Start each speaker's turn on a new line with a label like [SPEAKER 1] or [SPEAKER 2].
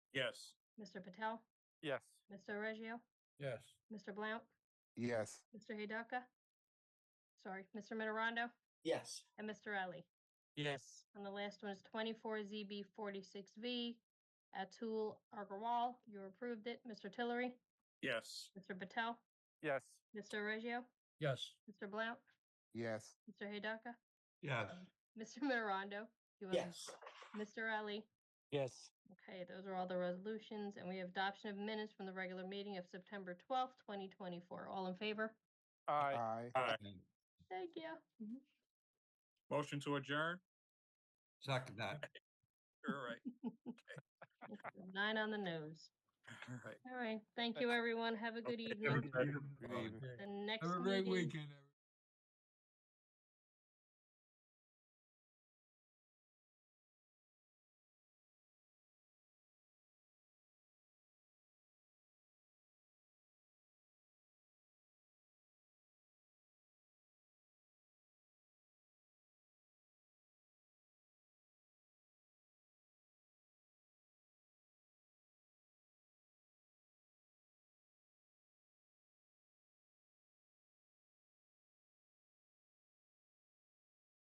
[SPEAKER 1] Yes.
[SPEAKER 2] Mr. Patel,
[SPEAKER 3] Yes.
[SPEAKER 2] Mr. Reggio,
[SPEAKER 1] Yes.
[SPEAKER 2] Mr. Blount,
[SPEAKER 4] Yes.
[SPEAKER 2] Mr. Hidaka. Sorry, Mr. Mitterondo
[SPEAKER 5] Yes.
[SPEAKER 2] and Mr. Ellie.
[SPEAKER 3] Yes.
[SPEAKER 2] And the last one is twenty-four ZB forty-six V. Atul Agarwal, you approved it. Mr. Tillery,
[SPEAKER 1] Yes.
[SPEAKER 2] Mr. Patel,
[SPEAKER 3] Yes.
[SPEAKER 2] Mr. Reggio,
[SPEAKER 1] Yes.
[SPEAKER 2] Mr. Blount,
[SPEAKER 4] Yes.
[SPEAKER 2] Mr. Hidaka,
[SPEAKER 1] Yes.
[SPEAKER 2] Mr. Mitterondo. you and
[SPEAKER 5] Yes.
[SPEAKER 2] Mr. Ellie.
[SPEAKER 3] Yes.
[SPEAKER 2] Okay, those are all the resolutions, and we have adoption of minutes from the regular meeting of September twelfth, twenty twenty-four. All in favor?
[SPEAKER 3] Aye.
[SPEAKER 4] Aye.
[SPEAKER 1] Aye.
[SPEAKER 2] Thank you.
[SPEAKER 1] Motion to adjourn?
[SPEAKER 5] Second that.
[SPEAKER 1] All right,
[SPEAKER 2] Nine on the nose.
[SPEAKER 1] all right.
[SPEAKER 2] All right, thank you, everyone. Have a good
[SPEAKER 1] Okay,
[SPEAKER 2] evening.
[SPEAKER 4] Good evening.
[SPEAKER 2] The next
[SPEAKER 5] Have a great
[SPEAKER 2] meeting.
[SPEAKER 5] weekend. everyone.